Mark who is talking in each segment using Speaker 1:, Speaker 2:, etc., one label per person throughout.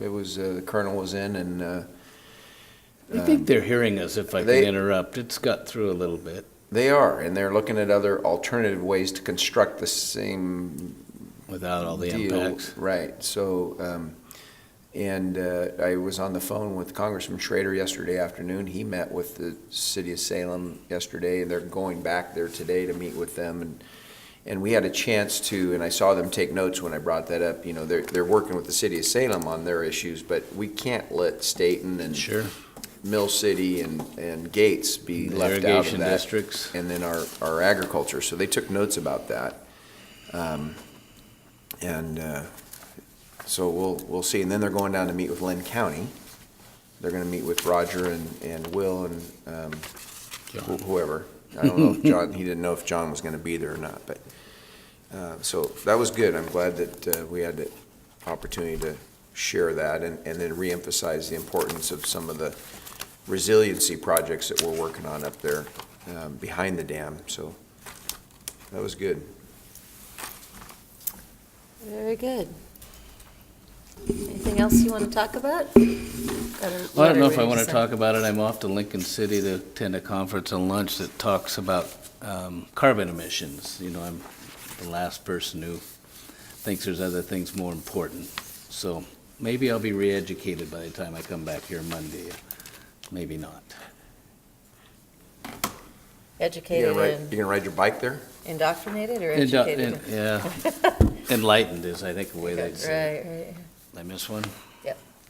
Speaker 1: It was, uh, the colonel was in and, uh,
Speaker 2: I think they're hearing us, if I can
Speaker 1: they-
Speaker 2: interrupt. It's got through a little bit.
Speaker 1: they are, and they're looking at other alternative ways to construct the same
Speaker 2: without all the
Speaker 1: deal.
Speaker 2: impacts.
Speaker 1: Right, so, um, and, uh, I was on the phone with Congressman Schrader yesterday afternoon. He met with the city of Salem yesterday, and they're going back there today to meet with them and and we had a chance to, and I saw them take notes when I brought that up, you know, they're, they're working with the city of Salem on their issues, but we can't let Staten and
Speaker 2: Sure.
Speaker 1: Mill City and, and Gates be
Speaker 2: The
Speaker 1: left out of
Speaker 2: irrigation
Speaker 1: that.
Speaker 2: districts.
Speaker 1: And then our, our agriculture, so they took notes about that. Um, And, uh, so we'll, we'll see, and then they're going down to meet with Lynn County. They're gonna meet with Roger and, and Will and, um, wh- whoever. I don't know if John, he didn't know if John was gonna be there or not, but, uh, so that was good. I'm glad that, uh, we had the opportunity to share that and, and then reemphasize the importance of some of the resiliency projects that we're working on up there, um, behind the dam, so that was good.
Speaker 3: Very good. Anything else you want to talk about?
Speaker 2: Well, I don't know if I want to talk about it. I'm off to Lincoln City to attend a conference and lunch that talks about um, carbon emissions. You know, I'm the last person who thinks there's other things more important. So maybe I'll be re-educated by the time I come back here Monday. Maybe not.
Speaker 1: You
Speaker 3: Educated
Speaker 1: gonna ride,
Speaker 3: and
Speaker 1: you gonna ride your bike there?
Speaker 3: indoctrinated or
Speaker 2: Indo-
Speaker 3: educated?
Speaker 2: in- uh, Yeah. Enlightened is, I think, the way they'd say.
Speaker 3: Right, right.
Speaker 2: it. I miss one?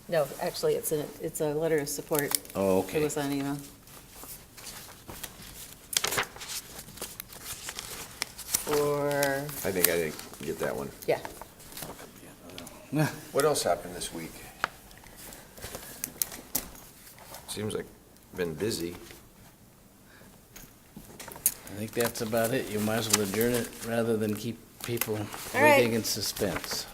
Speaker 3: No, actually, it's a, it's a letter of support.
Speaker 2: Oh,
Speaker 3: It
Speaker 2: okay.
Speaker 3: was on email. For,
Speaker 1: I think I didn't get that one.
Speaker 3: yeah,
Speaker 1: What else happened this week? Seems like been busy.
Speaker 2: I think that's about it. You might as well adjourn it rather than keep people
Speaker 3: All right.
Speaker 2: waiting in suspense.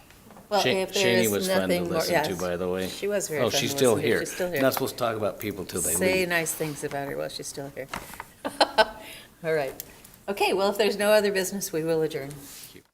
Speaker 3: well,
Speaker 2: Sha-
Speaker 3: if there
Speaker 2: Shani
Speaker 3: is
Speaker 2: was fun to
Speaker 3: nothing more,
Speaker 2: listen to,
Speaker 3: yes.
Speaker 2: by the way.
Speaker 3: She was very
Speaker 2: Oh,
Speaker 3: fun
Speaker 2: she's
Speaker 3: to
Speaker 2: still
Speaker 3: listen to.
Speaker 2: here.
Speaker 3: She's still
Speaker 2: Not supposed to talk about people till they
Speaker 3: Say
Speaker 2: leave.
Speaker 3: nice things about her while she's still here. All right. Okay, well, if there's no other business, we will adjourn.
Speaker 2: Thank you.